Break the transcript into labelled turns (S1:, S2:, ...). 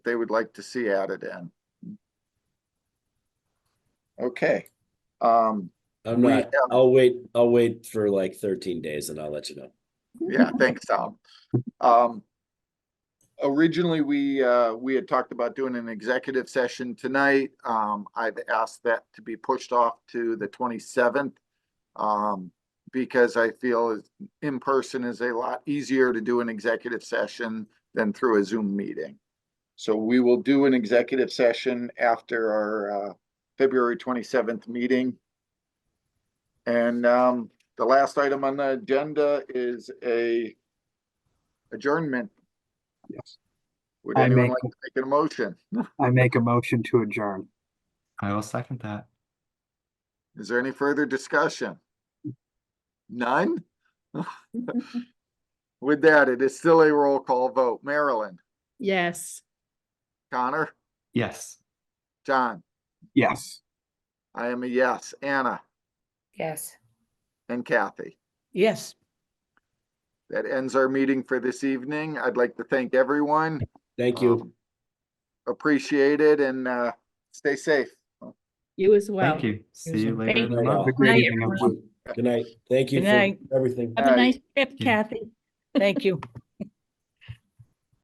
S1: they would like to see added in. Okay. Um,
S2: I'm
S1: We
S2: not,
S1: have-
S2: I'll wait, I'll wait for like thirteen days and I'll let you know.
S1: Yeah, thanks, Tom. Um, originally, we, uh, we had talked about doing an executive session tonight. Um, I've asked that to be pushed off to the twenty-seventh. Um, because I feel is- in person is a lot easier to do an executive session than through a Zoom meeting. So we will do an executive session after our, uh, February twenty-seventh meeting. And, um, the last item on the agenda is a adjournment.
S3: Yes.
S1: Would
S3: I
S1: anyone
S3: make-
S1: like to make a motion?
S3: I make a motion to adjourn.
S4: I will second that.
S1: Is there any further discussion? None? With that, it is still a roll call vote. Marilyn,
S5: Yes.
S1: Connor,
S4: Yes.
S1: John,
S3: Yes.
S1: I am a yes. Anna
S6: Yes.
S1: and Kathy.
S5: Yes.
S1: That ends our meeting for this evening. I'd like to thank everyone.
S2: Thank you.
S1: Um, Appreciate it and, uh, stay safe.
S5: You as well.
S4: Thank you. See
S6: Here's
S4: you
S6: a-
S4: later in the
S2: Thank
S4: month.
S3: Have a great
S7: Night,
S3: evening, everyone.
S2: Good night. Thank you
S7: Good
S2: for
S7: night.
S2: everything.
S7: Have a
S1: Aye.
S7: nice trip,
S4: Yeah.
S7: Kathy. Thank you.